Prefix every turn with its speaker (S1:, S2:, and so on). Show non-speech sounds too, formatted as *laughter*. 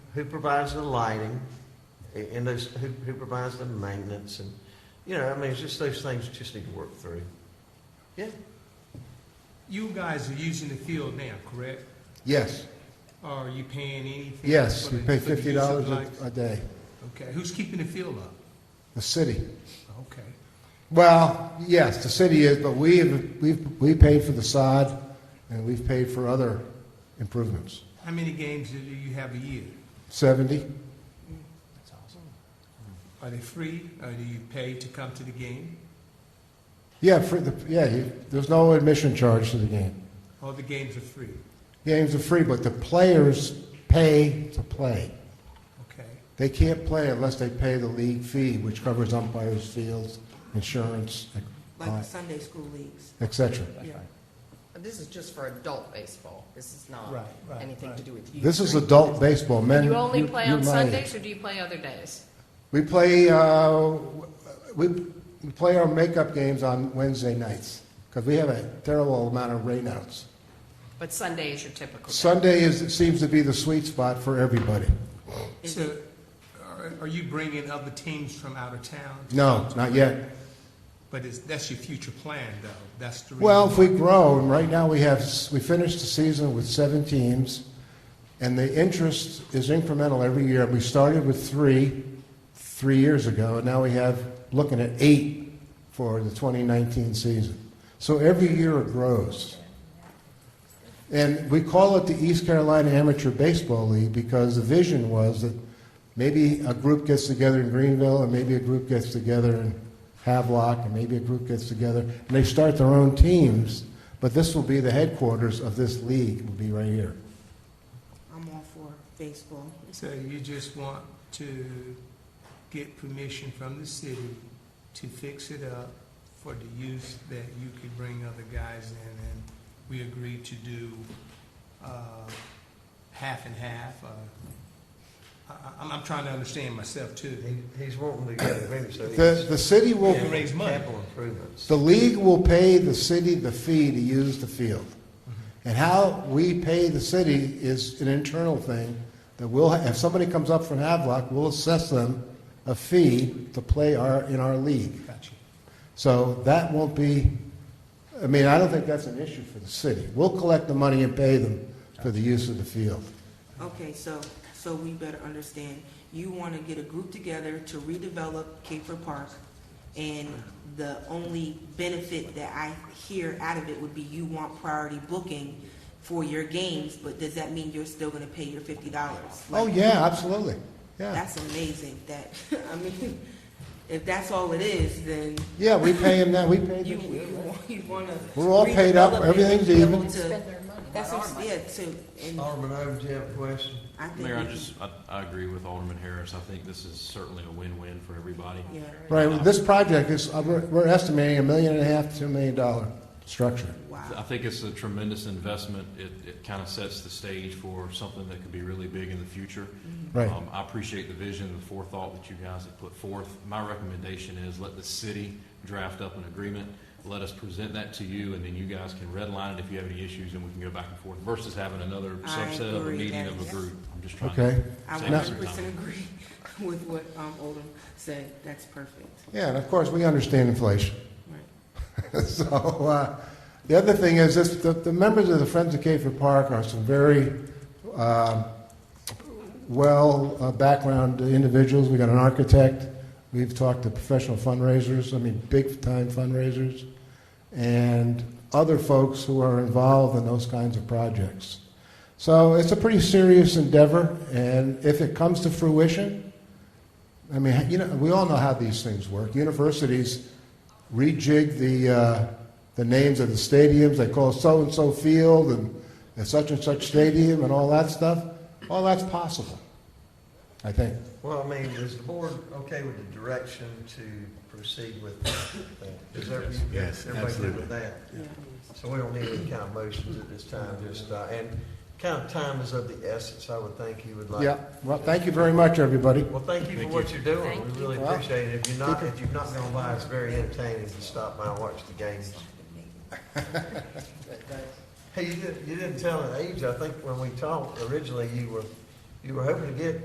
S1: who provides the lighting, a- and those, who, who provides the maintenance, and, you know, I mean, it's just those things just need to work through. Yeah,
S2: You guys are using the field now, correct?
S3: Yes,
S2: Are you paying anything?
S3: yes,
S2: for
S3: you
S2: the-
S3: pay
S2: for the use
S3: fifty
S2: of
S3: dollars
S2: lights?
S3: a day,
S2: Okay, who's keeping the field up?
S3: the city.
S2: Okay,
S3: Well, yes, the city is, but we have, we've, we paid for the sod, and we've paid for other improvements.
S2: how many games do you have a year?
S3: Seventy?
S2: That's awesome. Are they free, or do you pay to come to the game?
S3: Yeah, for the, yeah, you, there's no admission charge to the game.
S2: All the games are free,
S3: Games are free, but the players pay to play.
S2: okay?
S3: They can't play unless they pay the league fee, which covers umpires, fields, insurance,
S4: like the
S3: uh,
S4: Sunday school leagues.
S3: et cetera.
S4: Yeah.
S5: This is just for adult baseball. This is not
S2: Right, right,
S5: anything to
S2: right.
S5: do with youth.
S3: This is adult baseball, men.
S5: You only play
S3: you're
S5: on
S3: my age.
S5: Sundays, or do you play other days?
S3: We play, uh, we, we play our makeup games on Wednesday nights because we have a terrible amount of rainouts.
S5: But Sunday is your typical day.
S3: Sunday is, seems to be the sweet spot for everybody.
S2: So, uh, are- are you bringing other teams from out of town?
S3: No, not yet.
S2: But it's, that's your future plan, though, that's the.
S3: Well, if
S2: reason-
S3: we grow, and right now we have, we finished the season with seven teams, and the interest is incremental every year. We started with three, three years ago, and now we have, looking at eight for the 2019 season. So every year it grows. And we call it the East Carolina Amateur Baseball League because the vision was that maybe a group gets together in Greenville, and maybe a group gets together in Havelock, and maybe a group gets together, and they start their own teams. But this will be the headquarters of this league. Will be right here.
S4: I'm all for baseball.
S2: So you just want to get permission from the city to fix it up for the use that you could bring other guys in, and we agreed to do, uh, half and half, uh, I, I- I'm, I'm trying to understand myself
S1: he,
S2: too.
S1: he's wanting to get agreement, so
S3: The,
S1: he's
S3: the city will.
S2: Yeah, raise money.
S1: capital improvements.
S3: The league will pay the city the fee to use the field. And how we pay the city is an internal thing that we'll, if somebody comes up from Havelock, we'll assess them a fee to play our, in our league.
S2: Gotcha.
S3: So that won't be, I mean, I don't think that's an issue for the city. We'll collect the money and pay them for the use of the field.
S4: Okay, so, so we better understand, you want to get a group together to redevelop Caper Park, and the only benefit that I hear out of it would be you want priority booking for your games, but does that mean you're still going to pay your fifty dollars?
S3: Oh, yeah, absolutely, yeah.
S4: That's amazing, that, *laughs* I mean, if that's all it is, then
S3: Yeah, we pay them now, we pay
S4: you,
S3: them.
S4: you want, you want to.
S3: We're all paid up, everything's even.
S4: Spend their money. That's what, I'm- yeah, to, and
S1: Alderman Oden, do you have a question?
S4: I think.
S6: Mayor, I
S4: we can-
S6: just, I, I agree with Alderman Harris. I think this is certainly a win-win for everybody.
S4: Yeah.
S3: Right, well, this project is, uh, we're we're estimating a million and a half, two million dollar structure.
S6: I
S4: Wow.
S6: think it's a tremendous investment. It, it kind of sets the stage for something that could be really big in the future.
S3: Right,
S6: Um, I appreciate the vision, the forethought that you guys have put forth. My recommendation is let the city draft up an agreement. Let us present that to you, and then you guys can redline it if you have any issues, and we can go back and forth versus having another
S4: I
S6: subset of a
S4: agree,
S6: meeting
S4: that
S6: of
S4: is-
S6: a group. I'm just trying to
S3: okay.
S4: I
S6: Same
S4: one
S3: as
S4: hundred percent agree *laughs* with what, um, Oldham said. That's perfect.
S3: Yeah, and of course, we understand inflation. *laughs*
S4: Right.
S3: So, uh, the other thing is, this, the, the members of the Friends of Cape Park are some very, um, well, uh, background individuals. We got an architect, we've talked to professional fundraisers, I mean, big-time fundraisers, and other folks who are involved in those kinds of projects. So it's a pretty serious endeavor, and if it comes to fruition, I mean, you know, we all know how these things work. Universities rejig the, uh, the names of the stadiums. They call so and so field and, and such and such stadium and all that stuff. All that's possible, I think.
S1: Well, I mean, is the board okay with the direction to proceed with that? Is everybody,
S3: Yes,
S1: everybody good with
S3: absolutely.
S1: that?
S4: Yeah.
S1: So we don't need any kind of motions at this time, just, uh, and kind of time is of the essence, I would think you would like.
S3: Yeah. Well, thank you very much, everybody.
S1: Well, thank you for
S6: Thank
S1: what you're doing,
S5: Thank
S1: we really
S3: you.
S1: appreciate it. If you're not, if you've not gone by, it's very entertaining to stop by and watch the games. Hey, you didn't, you didn't tell an age, I think when we talked originally, you were, you were hoping to get